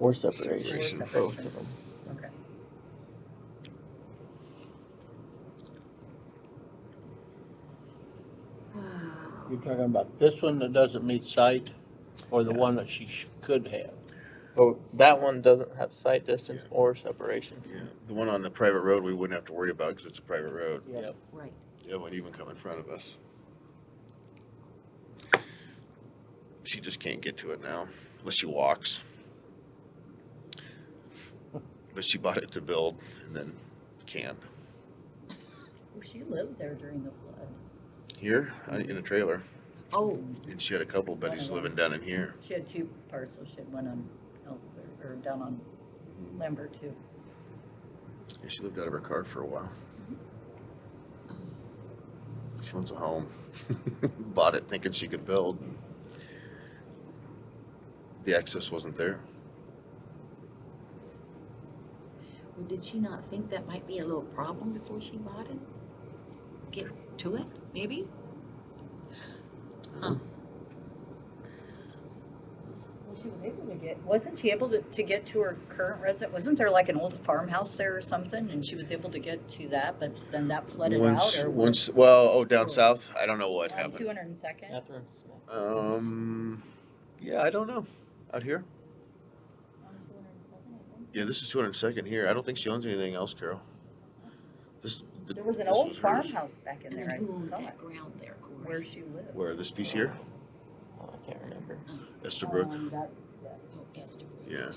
or separation, Separation. both of them. Okay. You're talking about this one that doesn't meet site, or the one that she sh- could have? But Oh, that one doesn't have sight distance or separation. Yeah, the one on the private road, we wouldn't have to worry about because it's a private road. Yep. Right. It wouldn't even come in front of us. She just can't get to it now unless she walks. But she bought it to build and then can. Well, she lived there during the flood. Here, uh, in a trailer, Oh, and she had a couple buddies living down in here. she had two parcels. She had one on, Elk- or down on Mm-hmm. Lambert too. And she lived out of her car for a while. She wants a home. Bought it thinking she could build. The access wasn't there. Well, did she not think that might be a little problem before she bought it? Get to it, maybe? Huh. Well, she was able to get, wasn't she able to, to get to her current resident? Wasn't there like an old farmhouse there or something? And she was able to get to that, but then that flooded Once, out or? once, well, oh, down Or- south, I don't know what Two happened. hundred and second? Catherine Smith. Um, yeah, I don't know. Out here? Yeah, this is two hundred and second here. I don't think she owns anything else, Carol. This, the. There was an this old hers. farmhouse back in And there, then I who owns thought, that ground there, where Corey? she lived. Where, this piece here? Oh, I can't remember. Estabrook? Um, That's, yeah, Oh, Esther. Yeah.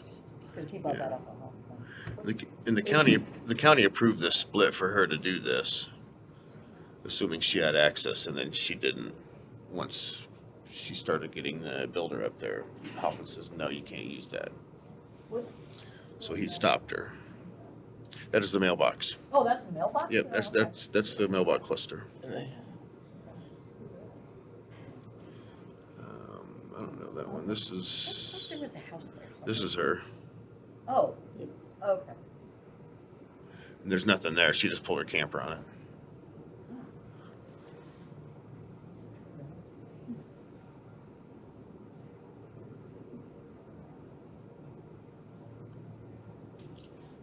cause he bought Yeah. that off of Hoffman. The- And the county, the county approved this split for her to do this, assuming she had access, and then she didn't. Once she started getting the builder up there, Hoffman says, no, you can't use that. What's- So he stopped her. That is the mailbox. Oh, that's a mailbox? Yep, that's, Oh, okay. that's, that's the mailbox cluster. And they- Um, I don't know that one. This I thought is, There was a house there. somewhere. this is her. Oh, Yep. okay. There's nothing there. She just pulled her camper on it.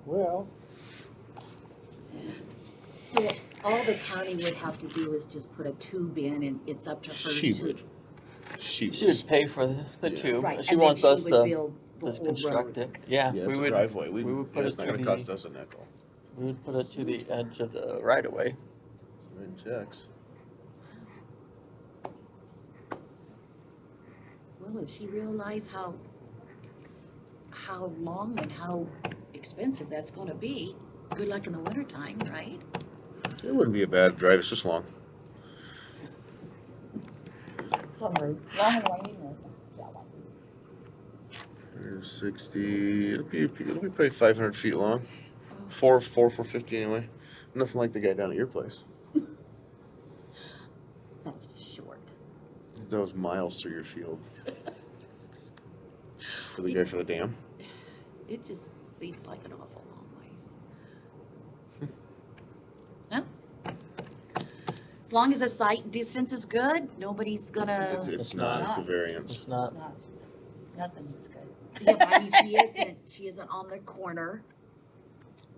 Well, So all the county would have to do is just put a tube in and it's up to her to. She would. She She would. would pay for the, the Yeah. tube, and Right, and she then wants she us would to build the just whole construct it, road. yeah, Yeah, we it's a would, driveway. We, we would put it's it not to gonna the- cost us a nickel. we would put it to the edge of the right of way. Writing checks. Well, does she realize how, how long and how expensive that's gonna be? Good luck in the wintertime, right? It wouldn't be a bad drive, it's just long. Some road, long and winding road. That one. There's Sixty, it'll be, it'll be probably five hundred feet long, four, four, four fifty anyway, nothing like the guy down at your place. That's just short. That was miles through your field. For the guy for the dam, It just seems like an awful long ways. As long as the sight distance is good, nobody's it's, gonna, it's not, it's a variance. It's not, It's not, nothing is good. yeah, but I mean, she isn't, she isn't on the corner.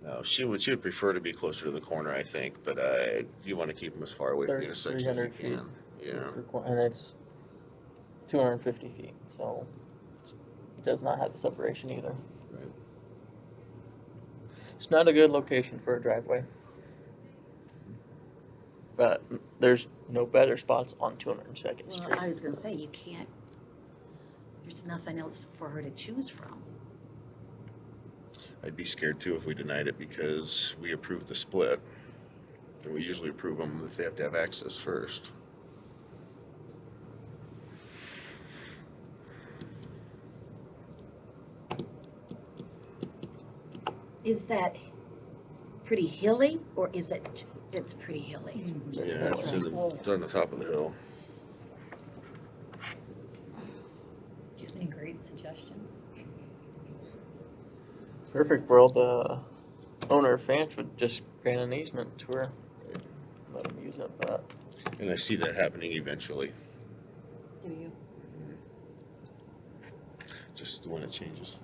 No, she would, she would prefer to be closer to the corner, I think, but, uh, you wanna keep them as far away from the Thir- intersection as 300 feet. you can. Yeah, it's requi- and it's two hundred and fifty feet, so it does not have the separation either. Right. It's not a good location for a driveway. But there's no better spots on two hundred and second Well, street. I was gonna say, you can't, there's nothing else for her to choose from. I'd be scared too if we denied it because we approved the split. And we usually approve them if they have to have access first. Is that pretty hilly, or is it, it's pretty hilly? Yeah, it's in the, it's on the top of the hill. Any great suggestions? Perfect world, the owner of Fanch would just grant an easement to her. Let them use it, but And I see that happening eventually, Do you? just when it changes.